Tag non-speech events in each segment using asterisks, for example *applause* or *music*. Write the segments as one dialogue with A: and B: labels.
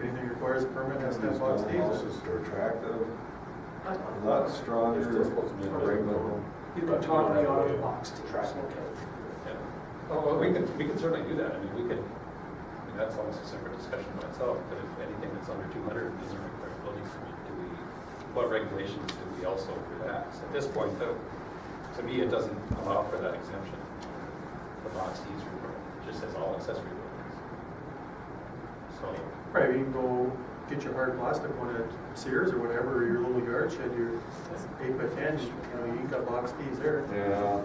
A: this permit has ten bucks diesel.
B: They're attractive,
A: Uh,
B: a lot stronger than a regular.
C: You can talk me out of the box, Steve.
D: Yeah. Oh, well, we could, we could certainly do that, I mean, we could, I mean, that's almost a separate discussion by itself, but if anything that's under two hundred doesn't require a building permit, do we, what regulations do we also relax? At this point, though, to me, it doesn't allow for that exemption, the box D's requirement, it just says all accessory buildings. So,
A: Right, you can go get your hard plastic one at Sears or whatever, or your little yard shed, your eight by ten, you know, you got box Ds there.
B: Yeah,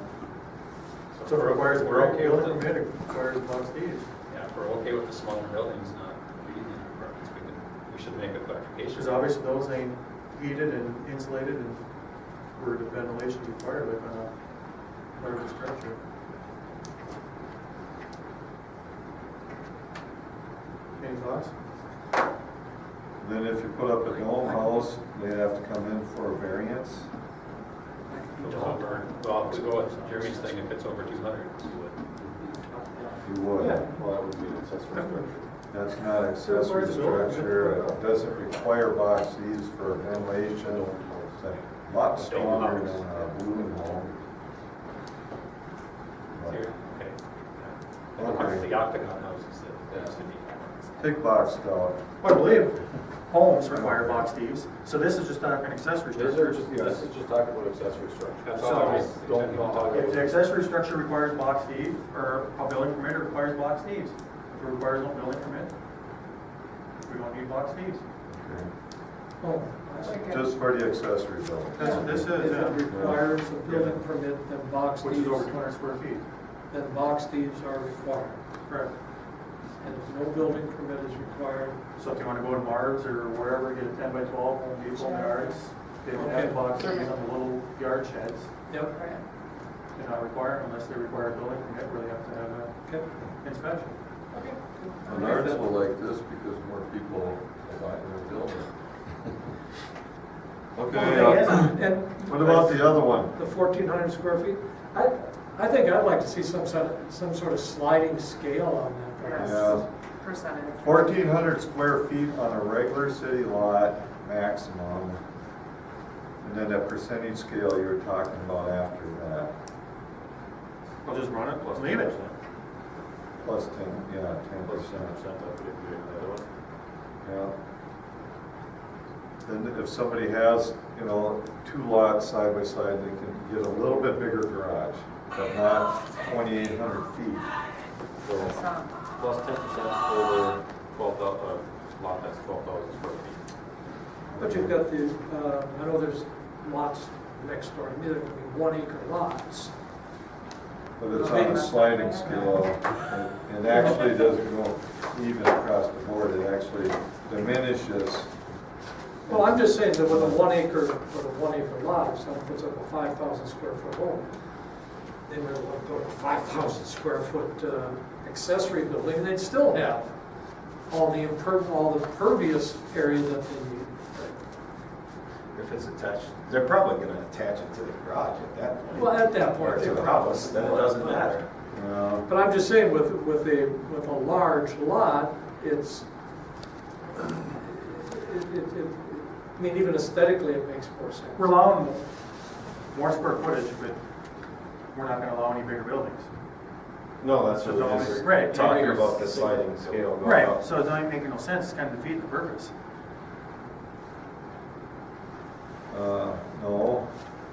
A: So if it requires,
D: we're okay with
A: building
D: it,
A: permit, it requires box Ds.
D: yeah, if we're okay with the smaller buildings, not meeting the requirements, we can, we should make a clarification.
A: Because obviously those ain't heated and insulated and where the ventilation's required, like on a, part of the structure. Any thoughts?
B: then if you put up a dome house, they'd have to come in for a variance.
D: If it's over- Well, if we go with Jeremy's thing, if it's over two hundred, we would.
B: You would.
E: Well, that would be an accessory structure.
B: That's not accessory structure, it doesn't require box Ds for ventilation. It's a Lot stronger than a balloon home.
D: Here, okay.
B: Okay.
D: Yeah. It's the octagon houses that used to be.
B: Big box dog.
A: I believe homes require box Ds, so this is just not an accessory
E: These are
A: structure.
E: just, this is just talking about accessory structure.
D: That's all I was
E: Don't talk
A: If the
E: about.
A: accessory structure requires box D, or a building permit requires box Ds, if it requires no building permit, we don't need box Ds.
B: Okay.
F: Oh, I think it-
B: Just for the accessory building.
A: That's what this
F: If
A: is,
F: it
A: yeah.
F: requires a building permit, then box
A: which is over two
F: deeds,
A: hundred square feet.
F: then box deeds are required.
A: Correct.
F: And if no building permit is required,
A: So if you wanna go to Mars or wherever, get a ten by twelve, Home Depot, and yards, they don't have
F: Okay.
A: box Ds on the little yard sheds.
F: yep,
A: They're not required unless they require a building permit where they have to have an
F: okay.
A: inspection.
B: And ours will like this because more people are buying their building.
F: Well,
B: *laughs*
F: the
B: Okay, uh,
F: thing is, And
B: what about the other one?
F: the fourteen hundred square feet, I, I think I'd like to see some sort of, some sort of sliding scale on that.
G: Yes.
B: Yeah,
G: percentage.
B: fourteen hundred square feet on a regular city lot maximum. And then that percentage scale you were talking about after that,
A: I'll just run it, plus leave it.
B: plus ten, yeah, ten
E: Plus ten
B: percent,
E: percent, that would be another one.
B: yeah. Then if somebody has, you know, two lots side by side, they can get a little bit bigger garage, but not twenty-eight hundred feet.
E: So
G: Some.
E: plus ten percent over twelve thousand, uh, lot that's twelve thousand square feet.
F: But you've got the, uh, I know there's lots next door, to me. there could be one acre lots.
B: But it's on a sliding scale, and- and actually doesn't go even across the board, it actually diminishes.
F: Well, I'm just saying that with a one acre, with a one acre lot, if someone puts up a five thousand square foot home, they might want to build a five thousand square foot uh, accessory building, and they'd still have all the imper, all the pervious area that they need.
H: If it's attached, they're probably gonna attach it to the garage at that point.
F: Well, at that point.
H: If it's a house, then it doesn't matter.
B: Uh,
F: But I'm just saying with, with a, with a large lot, it's, it, it, it, I mean, even aesthetically, it makes more sense.
A: We're allowing more square footage, but we're not gonna allow any bigger buildings.
H: No, that's
A: So
H: what
A: don't-
H: it is.
A: right,
H: Talking
A: yeah,
H: about the
A: you're-
H: sliding scale. going
A: Right,
H: up.
A: so it's not even making no sense, it's kind of defeating the purpose.
B: uh, No,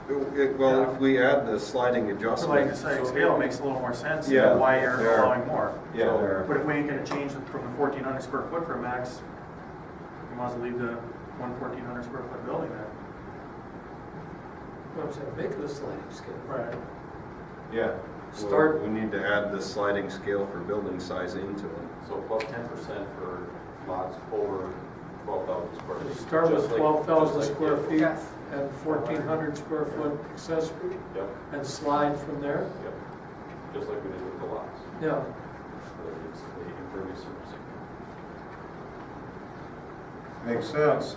I: Well, if we add the sliding
A: So like, the
I: adjustment,
A: sliding scale it makes a little more sense,
B: Yeah,
A: than why you're
B: there.
A: allowing more.
B: yeah, there.
A: But if we ain't gonna change it from the fourteen hundred square foot for a max, you might as well leave the one fourteen hundred square foot building there.
F: What I'm saying, make it a sliding scale.
A: Right.
I: yeah.
F: Start-
I: We need to add the sliding scale for building size into it.
E: So plus ten percent for lots over twelve thousand square feet.
F: Start
E: Just
F: with
E: like-
F: twelve thousand
E: just like
F: square
E: the-
F: feet
G: Yes.
F: and fourteen hundred square foot accessory
E: Yep,
F: and slide from there.
E: yep, just like we did with the lots,
F: Yeah,
E: but it's the impervious surface area.
B: Makes sense.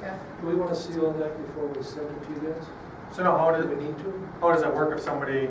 G: Okay.
F: do we want to see all that before we send it to you guys?
A: So now how
F: Do we
A: does,
F: need to?
A: how does that work if somebody